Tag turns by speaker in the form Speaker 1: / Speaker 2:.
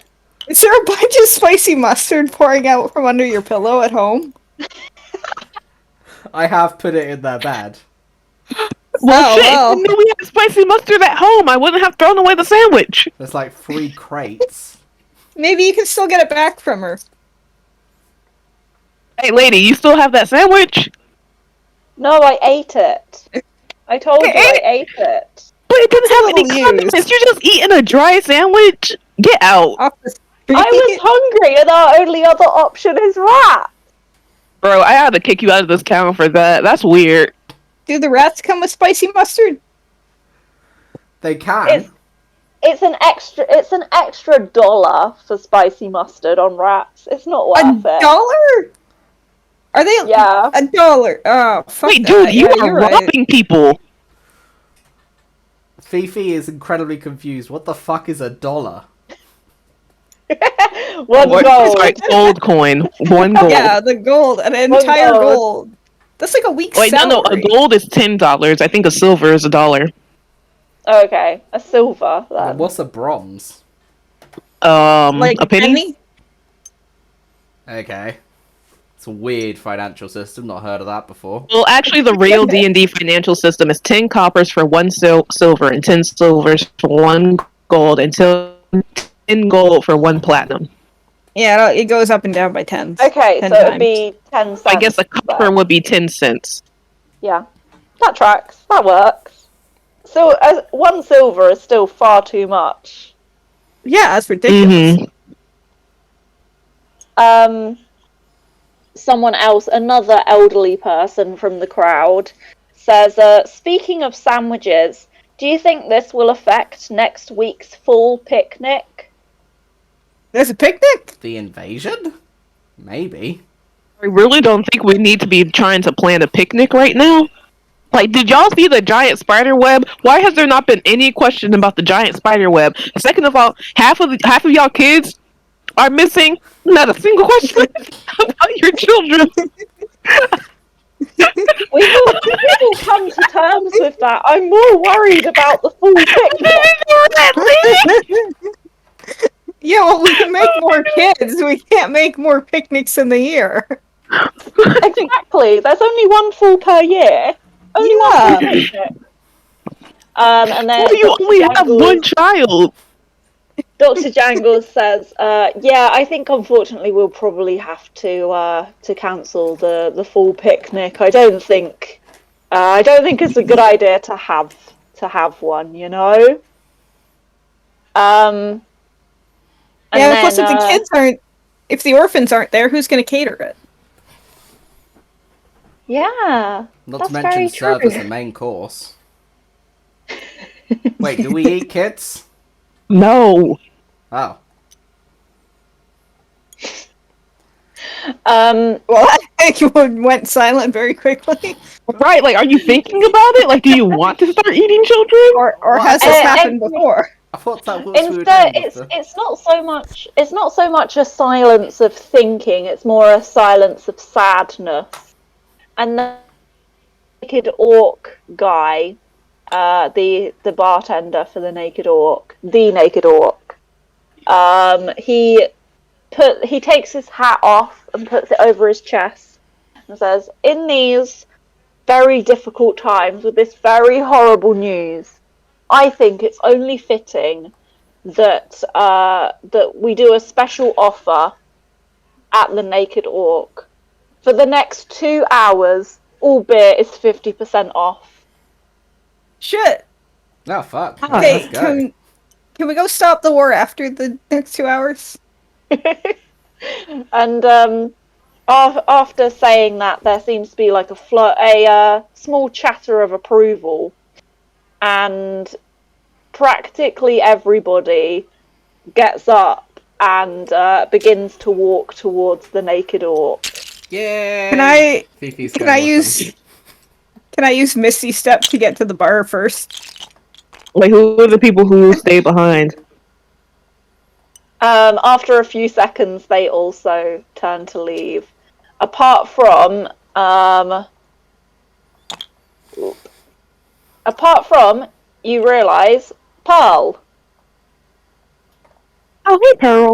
Speaker 1: Is there a bunch of spicy mustard pouring out from under your pillow at home?
Speaker 2: I have put it in their bed.
Speaker 1: Well,
Speaker 3: Shit,
Speaker 1: Oh, well.
Speaker 3: no, we have spicy mustard at home. I wouldn't have thrown away the sandwich.
Speaker 2: There's like three crates.
Speaker 1: Maybe you can still get it back from her.
Speaker 3: Hey, lady, you still have that sandwich?
Speaker 4: No, I ate it. I told you I ate it.
Speaker 3: But it didn't have any
Speaker 1: Still
Speaker 3: condiments. You're just eating a dry sandwich. Get out,
Speaker 1: Off the street.
Speaker 4: I was hungry, and our only other option is that.
Speaker 3: bro. I had to kick you out of this town for that. That's weird.
Speaker 1: Do the rats come with spicy mustard?
Speaker 2: They can.
Speaker 4: It's- It's an extra. It's an extra dollar for spicy mustard on wraps. It's not worth
Speaker 1: A
Speaker 4: it.
Speaker 1: dollar? Are they?
Speaker 4: Yeah.
Speaker 1: A dollar. Oh, fuck
Speaker 3: Wait,
Speaker 1: that.
Speaker 3: dude, you
Speaker 1: Yeah,
Speaker 3: are
Speaker 1: you're right.
Speaker 3: robbing people.
Speaker 2: Fifi is incredibly confused. What the fuck is a dollar?
Speaker 4: One
Speaker 3: Or-
Speaker 4: gold.
Speaker 3: sorry, gold coin, one gold.
Speaker 1: Yeah, the gold. An entire
Speaker 4: gold.
Speaker 1: gold. That's like a week's
Speaker 3: Wait,
Speaker 1: salary.
Speaker 3: no, no, a gold is ten dollars. I think a silver is a dollar.
Speaker 4: Okay, a silver.
Speaker 1: Um,
Speaker 4: Then.
Speaker 2: What's a bronze?
Speaker 3: Um,
Speaker 1: Like
Speaker 3: a penny.
Speaker 2: Okay. It's a weird financial system. Not heard of that before.
Speaker 3: Well, actually, the real D and D financial system is ten coppers for one sil- silver and ten silvers for one gold and til- ten gold for one platinum.
Speaker 1: Yeah, no, it goes up and down by tens.
Speaker 4: Okay,
Speaker 1: Ten
Speaker 4: so it'd
Speaker 1: times.
Speaker 4: be ten cents.
Speaker 3: So I guess a copper
Speaker 4: then.
Speaker 3: would be ten cents.
Speaker 4: Yeah, that tracks. That works. So as one silver is still far too much.
Speaker 1: Yeah, that's ridiculous.
Speaker 3: Mm-hmm.
Speaker 4: Um, someone else, another elderly person from the crowd, says, uh, "Speaking of sandwiches, do you think this will affect next week's full picnic?"
Speaker 1: There's a picnic?
Speaker 2: The invasion? Maybe.
Speaker 3: I really don't think we need to be trying to plan a picnic right now. Like, did y'all see the giant spider web? Why has there not been any question about the giant spider web? Second of all, half of the, half of y'all kids are missing not a single question about your children.
Speaker 4: We will, we will come to terms with that. I'm more worried about the full picnic.
Speaker 1: Yeah, well, we can make more kids. We can't make more picnics in the year.
Speaker 4: Exactly. There's only one full per year. Only
Speaker 1: Yeah.
Speaker 4: one full picnic. Um, and then
Speaker 3: Well, you
Speaker 4: Dr.
Speaker 3: only have
Speaker 4: Jangles-
Speaker 3: one child.
Speaker 4: Dr. Jangles says, uh, "Yeah, I think unfortunately we'll probably have to uh, to cancel the the full picnic. I don't think uh, I don't think it's a good idea to have to have one. You know." Um. and
Speaker 1: yeah, plus
Speaker 4: then,
Speaker 1: if the
Speaker 4: uh,
Speaker 1: kids aren't, if the orphans aren't there, who's going to cater it?
Speaker 4: Yeah.
Speaker 2: Not
Speaker 4: That's
Speaker 2: to mention
Speaker 4: very
Speaker 2: serve
Speaker 4: true.
Speaker 2: as the main course. Wait, do we eat kids?
Speaker 3: No.
Speaker 2: Oh.
Speaker 4: Um.
Speaker 1: Well, I think one went silent very quickly.
Speaker 3: Right, like are you thinking about it? Like do you want to start eating children?
Speaker 1: Or, or
Speaker 2: Well,
Speaker 1: has this
Speaker 4: uh,
Speaker 1: happened
Speaker 4: and-
Speaker 1: before?
Speaker 2: I thought that was we were
Speaker 4: Instead,
Speaker 2: doing
Speaker 4: it's
Speaker 2: with the-
Speaker 4: it's not so much it's not so much a silence of thinking; it's more a silence of sadness. And the naked orc guy, uh, the the bartender for the naked orc, the naked orc, um, he put he takes his hat off and puts it over his chest and says, "In these very difficult times with this very horrible news." I think it's only fitting that uh, that we do a special offer at the Naked Orc. For the next two hours, all beer is fifty percent off.
Speaker 1: Shit.
Speaker 2: Oh, fuck. Yeah,
Speaker 1: Okay,
Speaker 2: let's go.
Speaker 1: can, can we go stop the war after the next two hours?
Speaker 4: And um, af- after saying that, there seems to be like a flo- a uh, small chatter of approval, and practically everybody gets up and uh, begins to walk towards the Naked Orc.
Speaker 2: Yay!
Speaker 1: Can I
Speaker 2: Fifi's
Speaker 1: can
Speaker 2: going
Speaker 1: I
Speaker 2: with
Speaker 1: use
Speaker 2: them.
Speaker 1: can I use Misty Step to get to the bar first?
Speaker 3: Like who are the people who stay behind?
Speaker 4: Um, after a few seconds, they also turn to leave. Apart from, um, apart from, you realise Pearl.
Speaker 3: Oh hey Pearl.